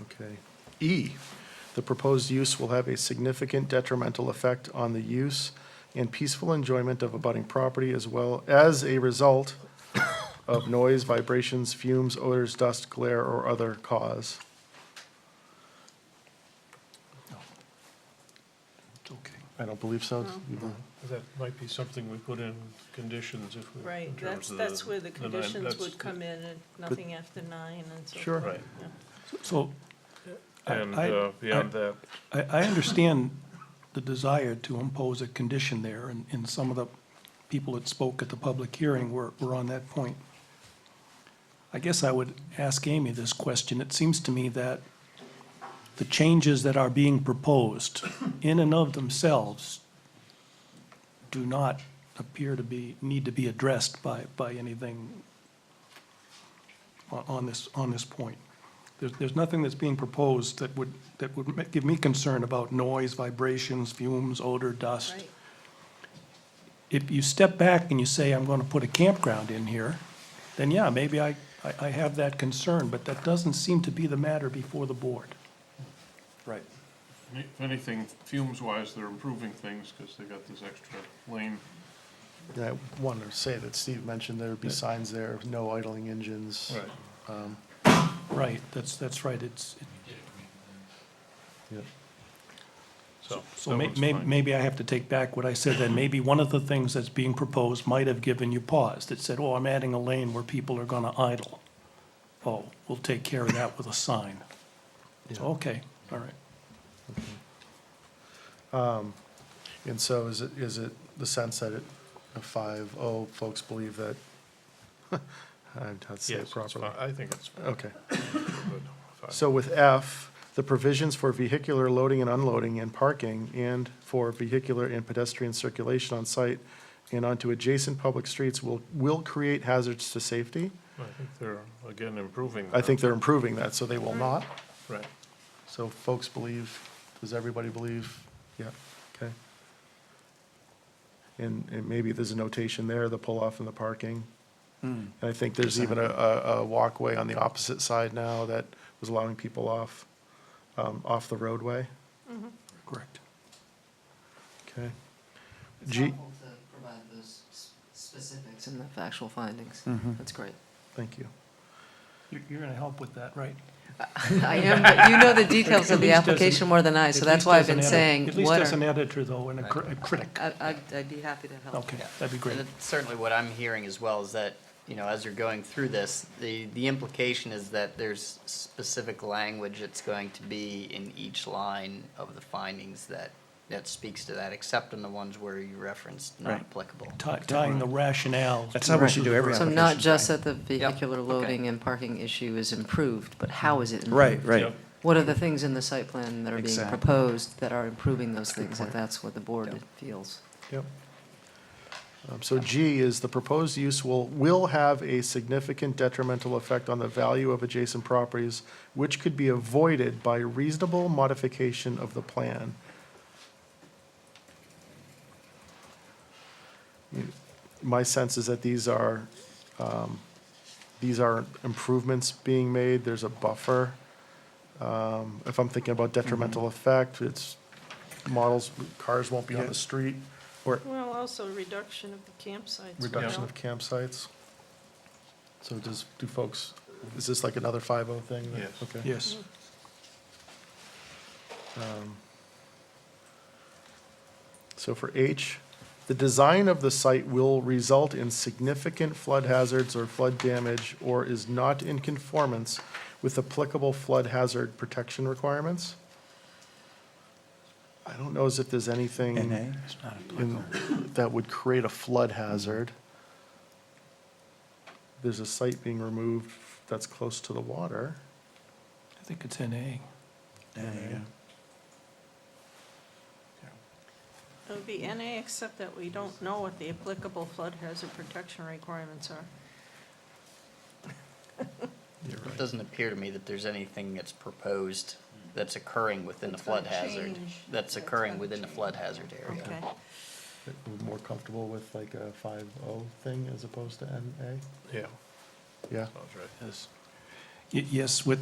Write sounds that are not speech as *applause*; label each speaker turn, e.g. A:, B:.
A: Okay. E, the proposed use will have a significant detrimental effect on the use and peaceful enjoyment of abutting property as well as a result of noise, vibrations, fumes, odors, dust, glare, or other cause.
B: Okay.
A: I don't believe so.
C: That might be something we put in conditions if we. in
D: Right,
C: terms
D: that's,
C: of
D: that's where the
C: the nine-
D: conditions
C: that's-
D: would come in, and nothing after nine and so forth.
A: Sure.
C: Right,
B: So I-
C: and
B: I-
C: uh, beyond that,
B: I, I understand the desire to impose a condition there, and, and some of the people that spoke at the public hearing were, were on that point. I guess I would ask Amy this question. It seems to me that the changes that are being proposed in and of themselves do not appear to be, need to be addressed by, by anything on, on this, on this point. There's, there's nothing that's being proposed that would, that would ma- give me concern about noise, vibrations, fumes, odor, dust.
D: Right,
B: If you step back and you say, I'm gonna put a campground in here, then yeah, maybe I, I, I have that concern, but that doesn't seem to be the matter before the board.
A: Right.
C: if anything, fumes-wise, they're improving things because they got this extra lane.
A: I wanted to say that Steve mentioned there would be signs there, no idling engines.
B: Right, that's, that's right, it's,
A: Yep.
C: So.
B: so
C: that
B: may,
C: one's
B: may,
C: fine.
B: maybe I have to take back what I said then. Maybe one of the things that's being proposed might have given you pause, that said, oh, I'm adding a lane where people are gonna idle. Oh, we'll take care of that with a sign.
A: Yeah.
B: Okay, all right.
A: And so is it, is it the sense that it, five oh folks believe that? *laughs* I'm not saying
C: Yes,
A: it
C: it's
A: properly.
C: fine. I think it's
A: Okay.
C: good. Fine.
A: So with F, the provisions for vehicular loading and unloading and parking and for vehicular and pedestrian circulation on site and onto adjacent public streets will, will create hazards to safety.
C: I think they're, again, improving.
A: I think they're improving that, so they will not.
C: that. Right.
A: So folks believe, does everybody believe? Yeah, okay. And, and maybe there's a notation there, the pull-off and the parking. And I think there's even a, a, a walkway on the opposite side now that was allowing people off, um, off the roadway,
B: Correct.
A: okay?
E: It's
A: G-
E: helpful to provide those s- specifics and the factual findings. That's great. *laughs*
A: Thank you.
B: You're, you're gonna help with that, right?
E: I am, but you know the details of the
B: At least as an-
E: application more than I, so
B: At
E: that's
B: least
E: why I've
B: as an
E: been
B: edit-
E: saying,
B: At least
E: what
B: as an
E: are,
B: editor though, and a cri- a critic.
E: I- I'd, I'd be happy to help.
B: Okay, that'd be great.
F: And that's certainly what I'm hearing as well is that, you know, as you're going through this, the, the implication is that there's specific language that's going to be in each line of the findings that, that speaks to that, except in the ones where you referenced not
G: Right.
F: applicable.
B: Ty- Tying the rationale.
G: That's
B: to-
G: how we should do every
E: So
G: application.
E: not just
G: right?
E: that the vehicular loading and parking issue is improved, but how is it
G: Right,
E: improved?
G: right.
E: What are the things in the site plan that are being
G: Exactly.
E: proposed that are improving those things,
A: point.
E: if that's what the
G: Yeah.
E: board feels?
A: Yep. Um, So G is the proposed use will, will have a significant detrimental effect on the value of adjacent properties, which could be avoided by reasonable modification of the plan. My sense is that these are, um, these are improvements being made, there's a buffer. Um, If I'm thinking about detrimental effect, it's models, cars won't be on the street.
D: well, also reduction of the campsites. you
A: Reduction
D: know.
A: of campsites. So does, do folks, is this like another 5 thing? that-
C: Yes.
A: Okay.
B: Yes,
A: Um, So for H, the design of the site will result in significant flood hazards or flood damage or is not in conformance with applicable flood hazard protection requirements. I don't know as if there's anything
G: NA, it's not applicable.
A: in, that would create a flood hazard. There's a site being removed that's close to the water.
B: I think it's NA.
G: NA, yeah.
D: It would be NA, except that we don't know what the applicable flood hazard protection requirements are.
F: It doesn't appear to me that there's anything that's proposed that's occurring within the
D: That's gonna
F: flood hazard,
D: change.
F: that's
D: That's
F: occurring
D: gonna
F: within the
D: change.
F: flood hazard area.
D: Okay,
A: That we're More comfortable with like a five-o thing as opposed to N A?
C: Yeah,
A: Yeah,
C: sounds right.
B: Y- Yes, with,